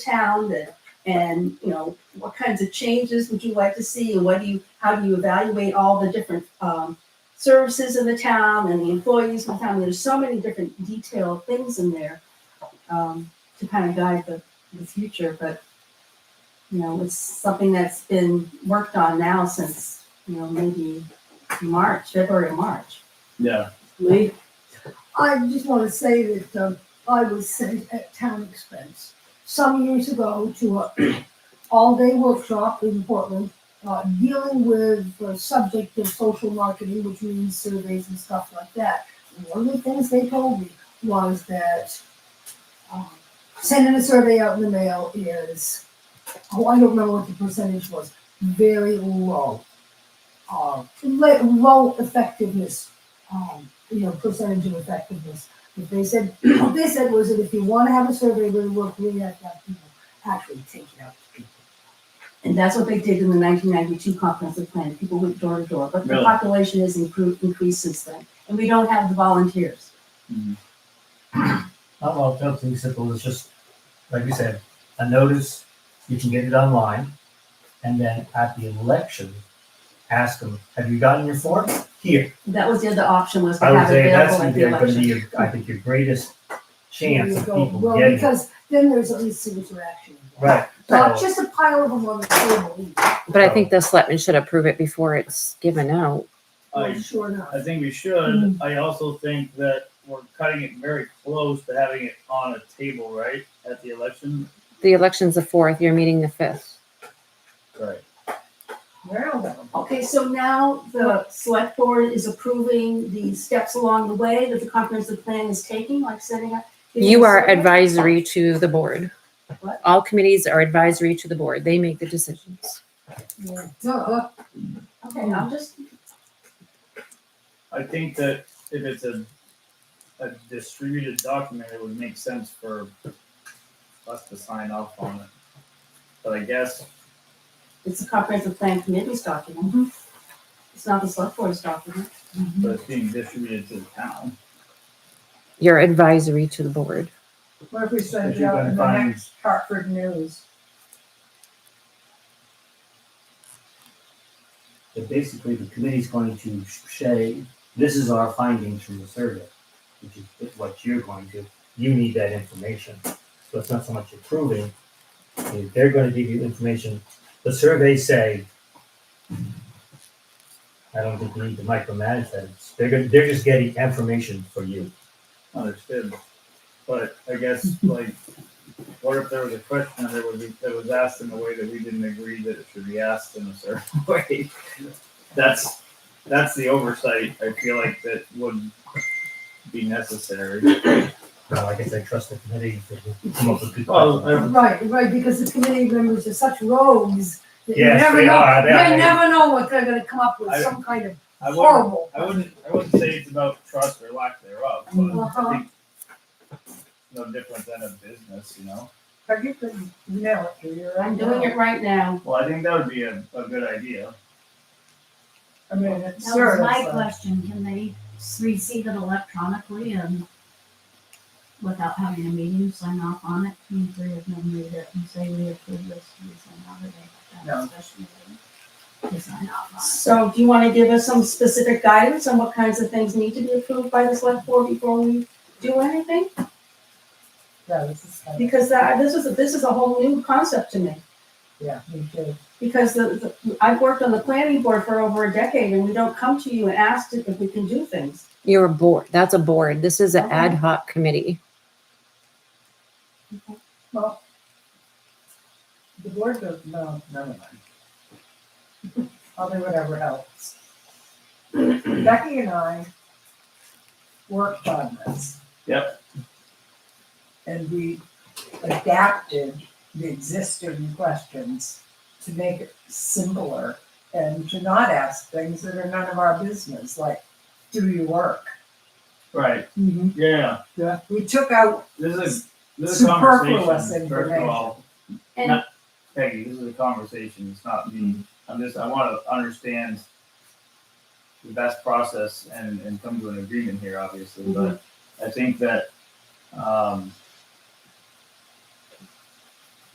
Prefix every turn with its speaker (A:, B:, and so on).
A: town that, and, you know, what kinds of changes would you like to see? And what do you, how do you evaluate all the different, um, services in the town and the employees in the town? There's so many different detailed things in there, um, to kind of guide the, the future, but, you know, it's something that's been worked on now since, you know, maybe March, February, or March.
B: Yeah,
C: Lee?
D: I just want to say that um, I was sent at town expense some years ago to a all-day workshop in Portland uh, dealing with the subject of social marketing, which means surveys and stuff like that. And one of the things they told me was that um, sending a survey out in the mail is, oh, I don't remember what the percentage was, very low. Uh, le- low effectiveness um, you know, percentage of effectiveness. If they said, what they said was that if you want to have a survey really work, we have to have people actually take it out. to people.
A: And that's what they did in the nineteen ninety-two comprehensive plan. People went door to door, but the
B: Really?
A: population has improved, increased since then. And we don't have the volunteers.
E: Not long, something simple, it's just, like you said, a notice, you can get it online, and then at the election, ask them, have you gotten your form? Here,
A: That was the other option was to
E: I would
A: have it
E: say that's
A: available at
E: gonna be,
A: the
E: gonna
A: election.
E: be, your- I think, your greatest chance
D: You
E: of
D: go,
E: people
D: Well,
E: getting it.
D: because then there's at least some interaction.
E: Right,
D: Not
E: so,
D: just a pile of them on the table,
F: But I think the selectmen should approve it before it's given out.
D: either.
B: I,
D: sure enough.
B: I think we should. I also think that we're cutting it very close to having it on a table, right, at the election?
F: The election's the fourth, your meeting the fifth.
B: Right.
D: Well, then.
A: Okay, so now the select board is approving the steps along the way that the comprehensive plan is taking, like setting up.
F: You are
A: advised.
F: advisory to the board.
A: What?
F: All committees are advisory to the board. They make the decisions.
D: Yeah, duh.
A: Okay, I'm just,
B: I think that if it's a, a distributed document, it would make sense for us to sign off on it. But I guess,
A: it's a comprehensive plan committee's document.
F: Mm-hmm.
A: It's not the select board's document.
B: but it's being distributed to the town.
F: You're advisory to the board.
G: What if we send
B: If
G: it
B: you
G: out
B: can
G: in the
B: find-
G: next Hartford News?
E: but basically, the committee's going to say, this is our findings from the survey, which is what you're going to, you need that information. So it's not so much approving, I mean, they're gonna give you information, the surveys say, I don't think we need to micromanage that, It's- they're, gonna- they're just getting information for you.
B: Understood. But I guess like, what if there was a question that would be, that was asked in a way that we didn't agree that it should be asked in a certain way? That's, that's the oversight I feel like that would be necessary.
E: Now, like I said, trust the committee to come up with good.
B: Well, I-
D: Right, right, because the committee members are such rogues. that you
E: Yes,
D: never
E: they
D: know-
E: are, they are.
D: You never know what they're gonna come up with,
B: I-
D: some kind of
B: I wouldn't-
D: horrible.
B: I wouldn't, I wouldn't say it's about trust or lack thereof, but
D: Uh-huh.
B: I think no different than a business, you know?
G: Have you been, no, you're.
A: I'm doing it right now.
B: Well, I think that would be a, a good idea.
G: I mean, it's
H: That was
G: sort
H: my
G: of.
H: question, can they s- receive it electronically and without having a meeting, sign off on it, you three of them read it and say, we approve this, we sign off it, they have
G: No.
H: a special meeting to sign off on it.
A: So do you want to give us some specific guidance on what kinds of things need to be approved by the select board before we do anything?
G: Yeah, this is kind of,
A: Because that, this is, this is a whole new concept to me.
G: yeah, me too.
A: Because the, the, I've worked on the planning board for over a decade and we don't come to you and ask if we can do things.
F: You're a board. That's a board. This is an ad hoc committee.
G: The board goes, no, never mind. I'll do whatever helps. Becky and I worked on this.
B: Yep.
G: And we adapted the existing questions to make it simpler and to not ask things that are none of our business, like, do you work?
B: Right,
G: Mm-hmm.
B: yeah,
G: We took out,
B: this is, this is a conversation,
G: Superfluous
B: first of all.
A: information.
B: Not- Peggy, this is a conversation, it's not me, I'm just, I wanna understand the best process and, and come to an agreement here, obviously, but I think that, um,